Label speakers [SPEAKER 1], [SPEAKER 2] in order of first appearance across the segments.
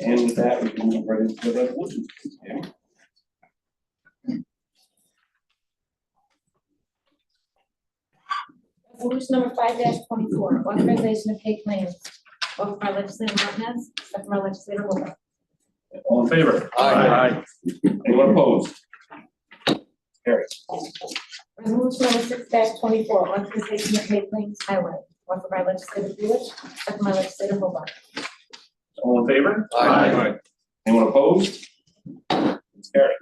[SPEAKER 1] And with that, we can move right into the resolution. Tammy?
[SPEAKER 2] Resolution number five twenty-four, authorization of pay claims, offered by legislator Martinez, second by legislator Lewis.
[SPEAKER 1] All in favor? Anyone opposed? Carry.
[SPEAKER 2] Resolution number six twenty-four, authorization of pay claims highway, offered by legislator Lewis, second by legislator Hobart.
[SPEAKER 1] All in favor?
[SPEAKER 3] Aye.
[SPEAKER 1] Anyone opposed? Carry.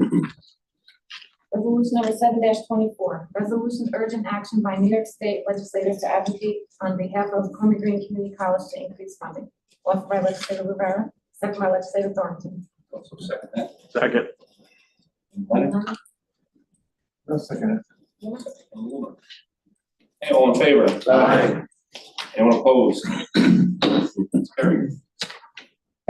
[SPEAKER 2] Resolution number seven twenty-four, resolution urgent action by New York State legislators to advocate on behalf of Columbia Green Community College to increase funding, offered by legislator Rivera, second by legislator Thornton.
[SPEAKER 1] Also second that.
[SPEAKER 3] Second.
[SPEAKER 1] Lennon?
[SPEAKER 3] I'll second
[SPEAKER 1] Hey, all in favor?
[SPEAKER 3] it. Aye.
[SPEAKER 1] Anyone opposed? Carry.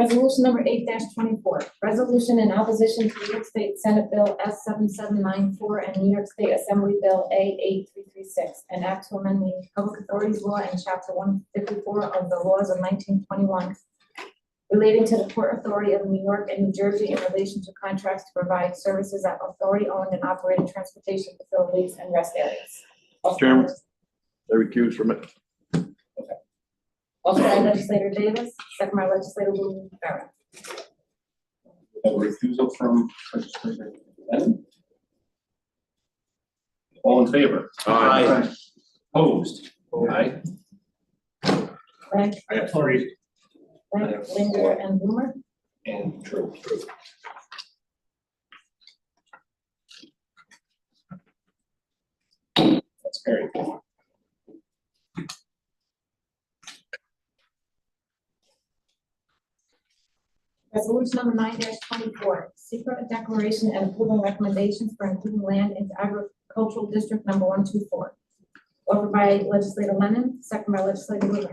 [SPEAKER 2] Resolution number eight twenty-four, resolution in opposition to New York State Senate Bill S seven seven nine four and New York State Assembly Bill A eight three three six, an act to amend the Public Authorities Law and Chapter one fifty-four of the laws of nineteen twenty-one relating to the Port Authority of New York and New Jersey in relation to contracts to provide services at authority-owned and operated transportation facilities and rest areas.
[SPEAKER 3] Chairman. I recuse from it.
[SPEAKER 2] Offered by legislator Davis, second by legislator Lou Ferraro.
[SPEAKER 1] A refusal from legislator Lennon? All in favor?
[SPEAKER 3] Aye.
[SPEAKER 1] Opposed? Aye.
[SPEAKER 2] Frank,
[SPEAKER 1] I have three.
[SPEAKER 2] Frank, Linder, and Blumer.
[SPEAKER 1] And true. That's carried.
[SPEAKER 2] Resolution number nine twenty-four, secret declaration and approval recommendations for including land in agricultural district number one two four. Offered by legislator Lennon, second by legislator Lewis.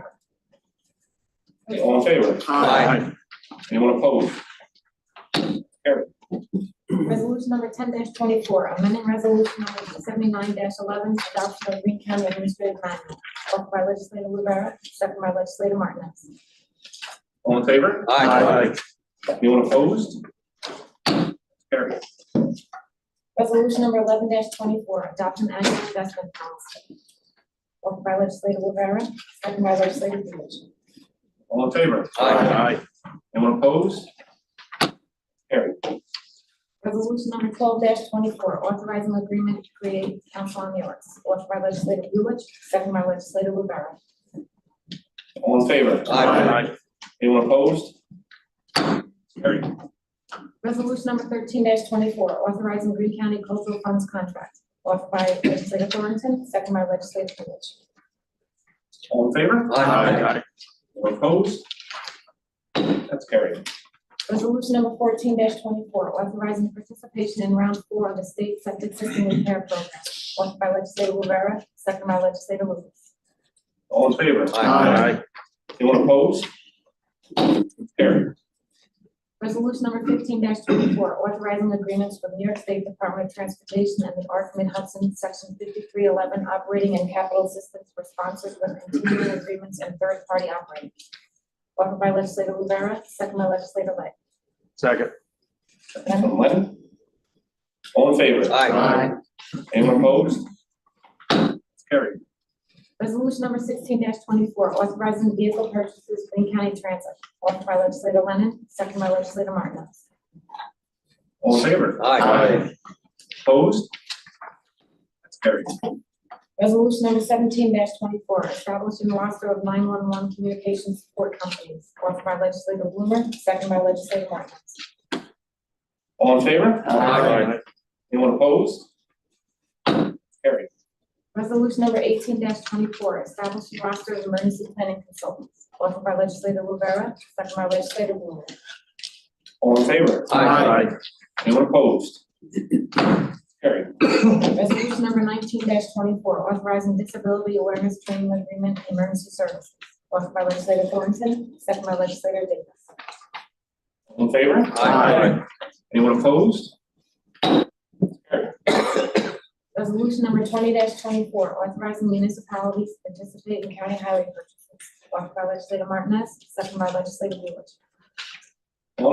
[SPEAKER 1] Hey, all in favor?
[SPEAKER 3] Aye.
[SPEAKER 1] Anyone opposed?
[SPEAKER 2] Resolution number ten twenty-four, amending resolution number seventy-nine eleven, adoption of Green County Administrative Manual. Offered by legislator Rivera, second by legislator Martinez.
[SPEAKER 1] All in favor?
[SPEAKER 3] Aye.
[SPEAKER 1] Anyone opposed? Carry.
[SPEAKER 2] Resolution number eleven twenty-four, adopt an annual investment policy. Offered by legislator Rivera, second by legislator Lewis.
[SPEAKER 1] All in favor?
[SPEAKER 3] Aye.
[SPEAKER 1] Anyone opposed? Carry.
[SPEAKER 2] Resolution number twelve twenty-four, authorizing agreement to create council on the arts, offered by legislator Lewis, second by legislator Rivera.
[SPEAKER 1] All in favor?
[SPEAKER 3] Aye.
[SPEAKER 1] Anyone opposed? Carry.
[SPEAKER 2] Resolution number thirteen twenty-four, authorizing Green County Cultural Funds contract, offered by legislator Thornton, second by legislator Lewis.
[SPEAKER 1] All in favor?
[SPEAKER 3] Aye.
[SPEAKER 1] Anyone opposed? That's carried.
[SPEAKER 2] Resolution number fourteen twenty-four, authorizing participation in round four of the state septic system repair program, offered by legislator Rivera, second by legislator Lewis.
[SPEAKER 1] All in favor?
[SPEAKER 3] Aye.
[SPEAKER 1] Anyone opposed? Carried.
[SPEAKER 2] Resolution number fifteen twenty-four, authorizing agreements with New York State Department of Transportation and the Arc Mid Hudson, section fifty-three eleven, operating and capital assistance for sponsors with continuing agreements and third-party operating. Offered by legislator Rivera, second by legislator Lett.
[SPEAKER 3] Second.
[SPEAKER 1] That's from Lennon. All in favor?
[SPEAKER 3] Aye.
[SPEAKER 1] Anyone opposed? Carried.
[SPEAKER 2] Resolution number sixteen twenty-four, authorizing vehicle purchases, Green County Transit, offered by legislator Lennon, second by legislator Martinez.
[SPEAKER 1] All in favor? Opposed? That's carried.
[SPEAKER 2] Resolution number seventeen twenty-four, establishing the roster of nine-one-one communication support companies, offered by legislator Blumer, second by legislator Martinez.
[SPEAKER 1] All in favor? Anyone opposed? Carried.
[SPEAKER 2] Resolution number eighteen twenty-four, establishing roster of emergency planning consultants, offered by legislator Rivera, second by legislator Blumer.
[SPEAKER 1] All in favor?
[SPEAKER 3] Aye.
[SPEAKER 1] Anyone opposed? Carried.
[SPEAKER 2] Resolution number nineteen twenty-four, authorizing disability awareness training agreement and emergency services, offered by legislator Thornton, second by legislator Davis.
[SPEAKER 1] All in favor?
[SPEAKER 3] Aye.
[SPEAKER 1] Anyone opposed?
[SPEAKER 2] Resolution number twenty twenty-four, authorizing municipalities to participate in county highway purchases, offered by legislator Martinez, second by legislator Lewis.